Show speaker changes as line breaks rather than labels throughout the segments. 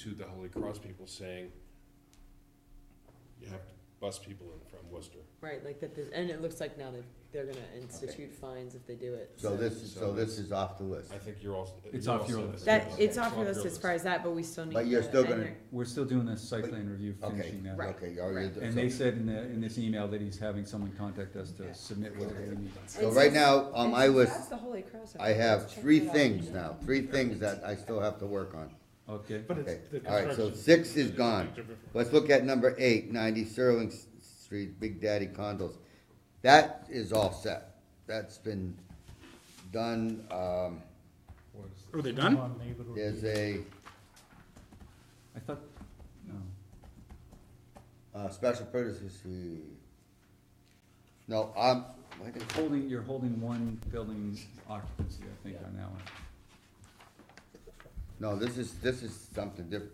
to the Holy Cross people saying, you have to bus people in from Worcester.
Right, like that, there's- and it looks like now that they're gonna institute fines if they do it.
So this, so this is off the list.
I think you're also.
It's
you're
off your
also-
list.
That,
Okay.
it's off your list as far as that, but we still need.
But you're
to-
still
and
gonna-
you're-
We're still doing the site
But-
plan review,
Okay,
finishing that.
Right.
okay, all right.
And they said in the, in this email that he's having someone contact us to submit whatever we need.
So right now, on my
That's
list,
the Holy Cross.
I have
Let's check
three
that out.
things now, three things that I still have to work on.
Okay,
But
Okay,
it's. the
all right, so
construction-
six is gone. Let's look at number eight, ninety Sterling S- Street, Big Daddy Condos. That is all set. That's been done, um,
Are they done?
there's a,
I thought, no,
uh, special purpose, no, I'm, why did-
holding, you're holding one building occupancy, I think, on that one.
No, this is, this is something different.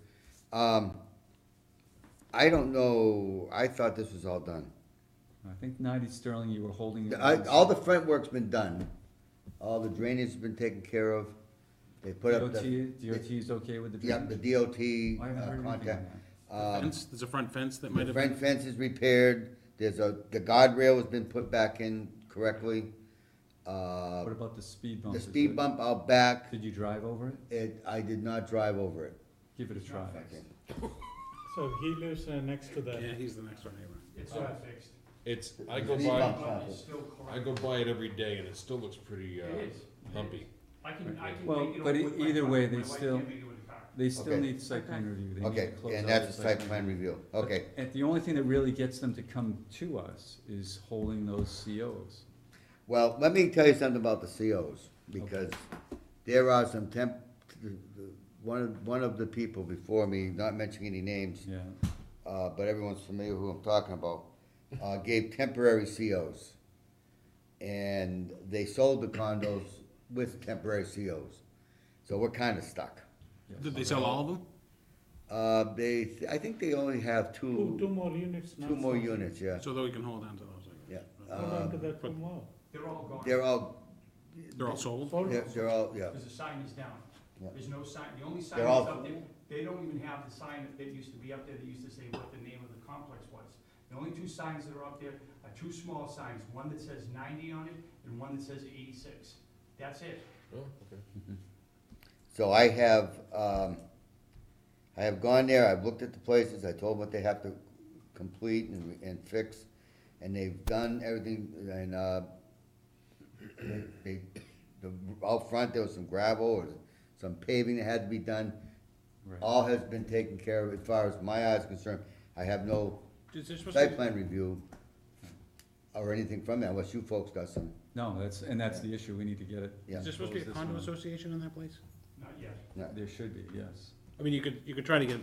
Um, I don't know, I thought this was all done.
I think ninety Sterling, you were holding.
I, all the front work's been done, all the drainage has been taken care of, they put up
DOT,
the.
DOT is okay with the
Yep,
drainage?
the DOT
I haven't
uh,
heard anything on
contact. Um,
Fence, there's a front fence that might
the
have
front
been,
fence is repaired, there's a, the guardrail has been put back in correctly. Uh,
What about the speed bump?
the
Is it-
speed bump out back,
Did you drive over it?
it, I did not drive over it.
Give it a try.
So he lives uh, next to
yeah,
the,
he's the next door neighbor.
It's not fixed.
It's, I go
Speed bump
by,
out.
It's still
I
clogged.
go by it every day and it still looks pretty, uh,
It is.
bumpy.
I can, I can
Well,
make it
but
up
e-
with my
either
car.
way, they
My wife
still-
can't make it with a car.
They still
Okay.
need site plan review. They need
Okay,
to close
and
out
that's
the
the site plan review, okay.
And the only thing that really gets them to come to us is holding those COs.
Well, let me tell you something about the COs, because there are some temp, one of, one of the people before me, not mentioning any names,
Yeah,
uh, but everyone's familiar who I'm talking about, uh, gave temporary COs. And they sold the condos with temporary COs, so we're kinda stuck.
Did they sell all of them?
Uh, they, I think they only have
two, two
two,
more units now.
two more
so-
units, yeah,
So that we can hold on to those, I
yeah.
guess.
Hold on
Uh,
to the two more.
They're all gone.
They're all,
They're all sold?
Sold.
they're, they're all, yeah,
Because the sign is down.
Yeah.
There's no sign, the only sign
They're
that's
all-
up there, they don't even have the sign that used to be up there that used to say what the name of the complex was. The only two signs that are up there are two small signs, one that says ninety on it and one that says eighty-six. That's it.
Oh, okay.
So I have, um, I have gone there, I've looked at the places, I told them what they have to complete and, and fix, and they've done everything, and, uh, they, the, out front, there was some gravel or some paving that had to be done.
right.
All has been taken care of as far as my eye is concerned. I have no
Is there supposed to
site
be-
plan review or anything from that, unless you folks got some,
No, that's, and that's the issue. We need to get it.
yeah,
Is there supposed to be a
Close this
condo
one.
association in that place?
Not yet.
There should be, yes.
I mean, you could, you could try to get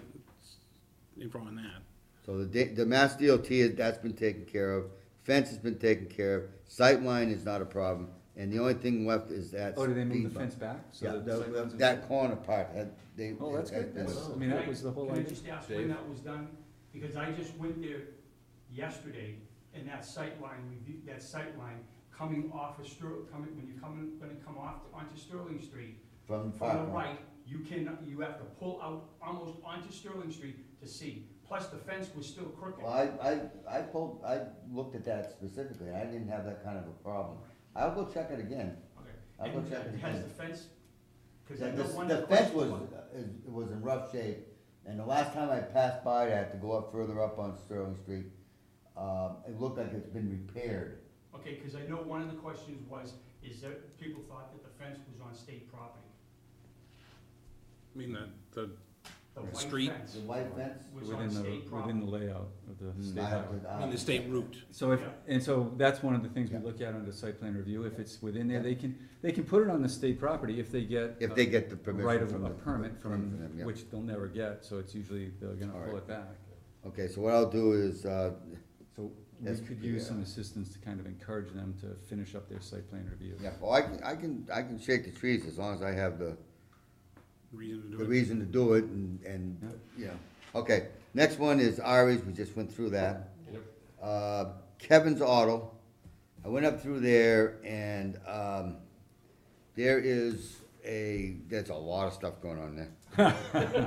info on that.
So the, da- the Mass DOT, is- that's been taken care of, fence has been taken care of, sightline is not a problem, and the only thing left is that.
Oh, did they move
speed
the
bump.
fence back? So
Yeah,
that the site
the-
plan's-
that corner part, had- they.
Oh, that's good.
had-
That's, I mean, that was the whole
Can I
idea.
just ask when that was done? Because I just went there yesterday, and that sight line, review- that sight line coming off of Sterling, coming, when you're coming, gonna come off onto Sterling Street,
From
from the
far,
right, you can, you have to pull out almost onto Sterling Street to see. Plus, the fence was still crooked.
well, I, I, I pulled, I looked at that specifically, I didn't have that kind of a problem. I'll go check it again.
Okay.
I'll go
And
check it
has
again.
the fence? 'cause I
The,
know one of
the
the
fence was,
questions
is, was in rough shape, and the last time I passed by, it, I had to go up further up on Sterling Street. Um, it looked like it's been repaired.
Okay, because I know one of the questions was, is that people thought that the fence was on state property.
I mean, the, the, The
The white
street.
fence
The white fence?
was
Within
on
the,
state property.
within the layout of the state
Mm, I
highway.
would-
I
I
mean, the
would-
state route.
So if,
Yeah.
and so that's one of the things we
Yeah.
look at under site plan review. If it's within there,
Yeah.
they can, they can put it on the state property if they get.
If
uh,
they get the
a
permission.
right of,
from
a
the-
permit
from
from,
them, yeah.
which they'll never get, so it's usually, they're gonna
All
pull
right.
it back.
Okay, so what I'll do is, uh,
So we
Yes,
could use
yeah.
some assistance to kind of encourage them to finish up their site plan review.
yeah, well, I can, I can, I can shake the trees as long as I have the,
Reason to
the
do it.
reason to do it and, and,
Yeah.
yeah. Okay, next one is Ari's, we just went through that.
Yep.
Uh, Kevin's Auto, I went up through there and, um, there is a, there's a lot of stuff going on there.